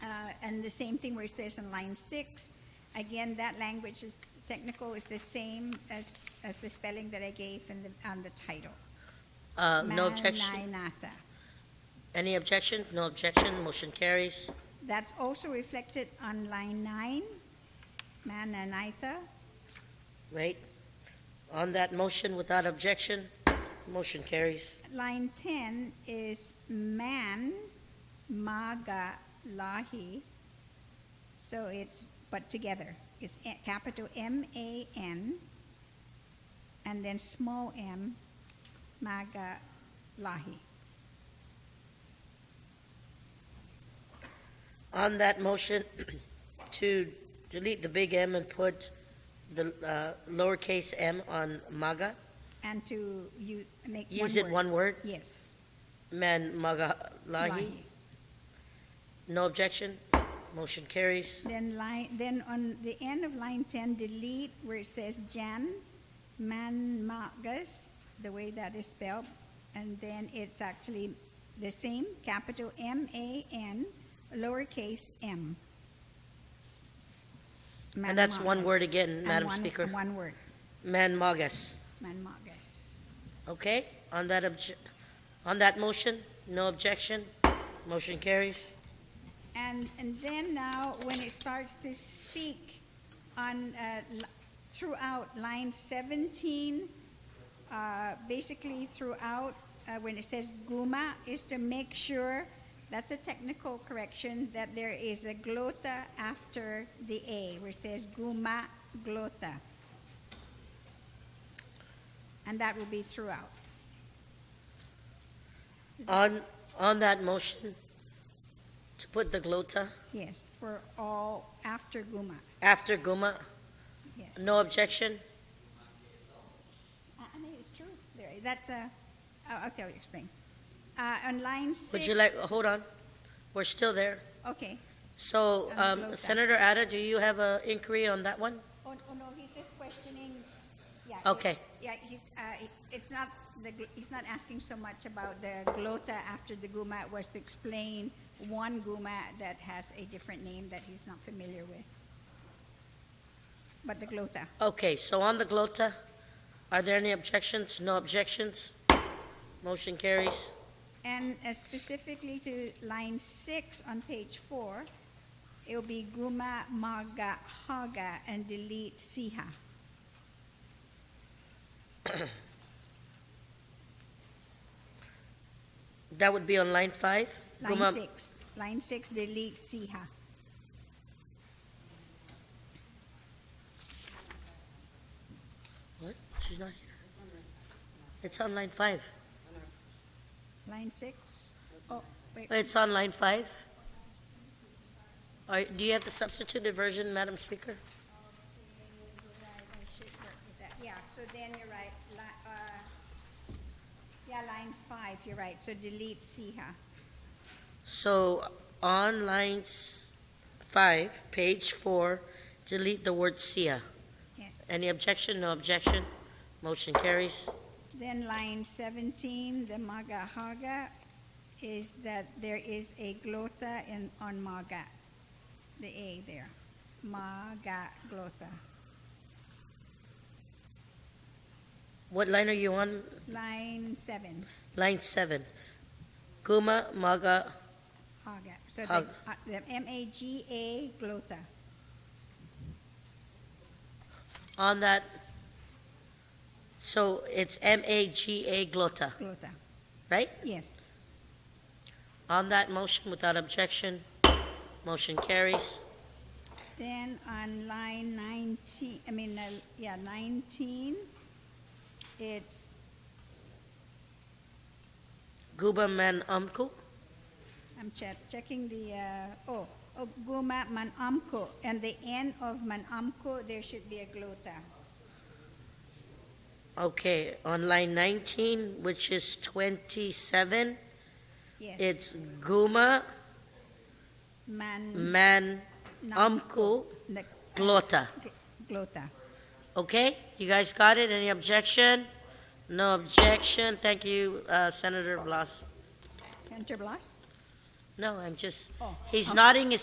then Uh, the same thing where it says in line six, again, that language is, technical is the same as, as the spelling that I gave in the, on the title. Uh, No objection? Maranatha. Any objection? No objection, motion carries. That's also reflected on line nine, Mananaitha. Right? On that motion, without objection, motion carries. Line 10 is man, maga, lahi. So it's, but together. It's a- capital M A N and then small m, maga, lahi. On that motion to delete the big M and put the uh, lowercase m on MAGA, And to you make one use it word. one word, Yes. man MAGA Lahi. lahi. No objection, motion carries. Then line, then on the end of line ten, delete where it says Jan, Manmagus, the way that is spelled, and then it's actually the same, capital M A N, lowercase m. And that's one Manmagus. word again, And Madam one- Speaker. and One word, Man MAGAS. Manmagus. Okay, on that obje, on that motion, no objection, motion carries. And, and then now, when it starts to speak on, uh, l- throughout line 17, uh, basically throughout, uh, when it says guma, is to make sure, that's a technical correction, that there is a glota after the A, where it says guma glota. And that will be throughout. On, on that motion, to put the glota Yes, for all, after guma, after guma, yes. no objection? Uh, I I mean, it's true. There, that's a, oh, okay, I'll explain. Uh, on line six. Would you like, hold on, we're still there. Okay. So, On the um, glota. Senator Ada, do you have an inquiry on that one? Oh, oh, no, he's just questioning, yeah. he- Okay. Yeah, he's, uh, it- it's not, the, gl- he's not asking so much about the glota after the guma. It was to explain one guma that has a different name that he's not familiar with. But the glota, Okay, so on the glota, are there any objections? No objections? Motion carries. And uh, specifically to line six on page four, it'll be guma maga haga and delete siha. That would be on line five? Line Guma- six, line six, delete siha. What? She's not here. It's on line five. Line six, oh, wait, It's on line five? Are, do you have the substituted version, Madam Speaker? you're right, I should work with that, yeah, so then you're right, li- uh, yeah, line five, you're right, so delete siha. So on line s- five, page four, delete the word SIA. yes. Any objection? No objection. Motion carries. Then line 17, the maga haga, is that there is a glota in, on maga, the A there. Maga glota. What line are you on? Line 7, Line seven. Guma maga, haga. So the, Hag- uh, the M-A-G-A glota. on that. So it's M-A-G-A glotta, Glota, right? yes. On that motion without objection, motion carries. Then on line 19, I mean, uh, yeah, 19, it's Guba man umku, I'm che- checking the, uh, oh, oh, Guma Manamko, and the end of Manamko, there should be a glota. okay, on line nineteen, which is twenty-seven, Yes. it's Guma Man, man Nam- umku the glotta. glota. Okay, you guys got it? Any objection? No objection. Thank you, uh, Senator Blas. Senator Blas? No, I'm just, Oh. he's nodding his